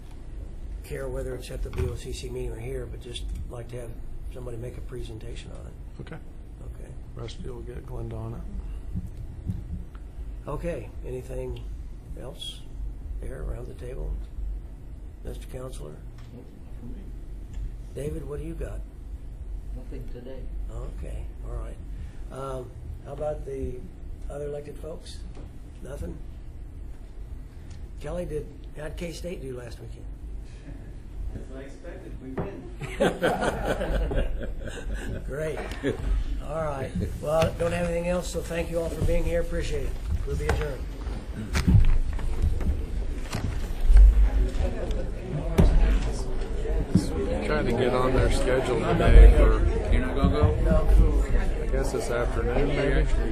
care whether it's at the BOCC meeting or here, but just like to have somebody make a presentation on it. Okay. Okay. Rusty will get Glenda on it. Okay, anything else there around the table? Mr. Counselor? Nope, not for me. David, what do you got? Nothing today. Okay, all right. Um, How about the other elected folks? Nothing? Kelly, did, how'd K-State do last weekend? As I expected, we win. Great. All right. Well, I don't have anything else, so thank you all for being here. Appreciate it. We'll be adjourned. Trying to get on their schedule today for, You're not gonna go? I guess this afternoon maybe?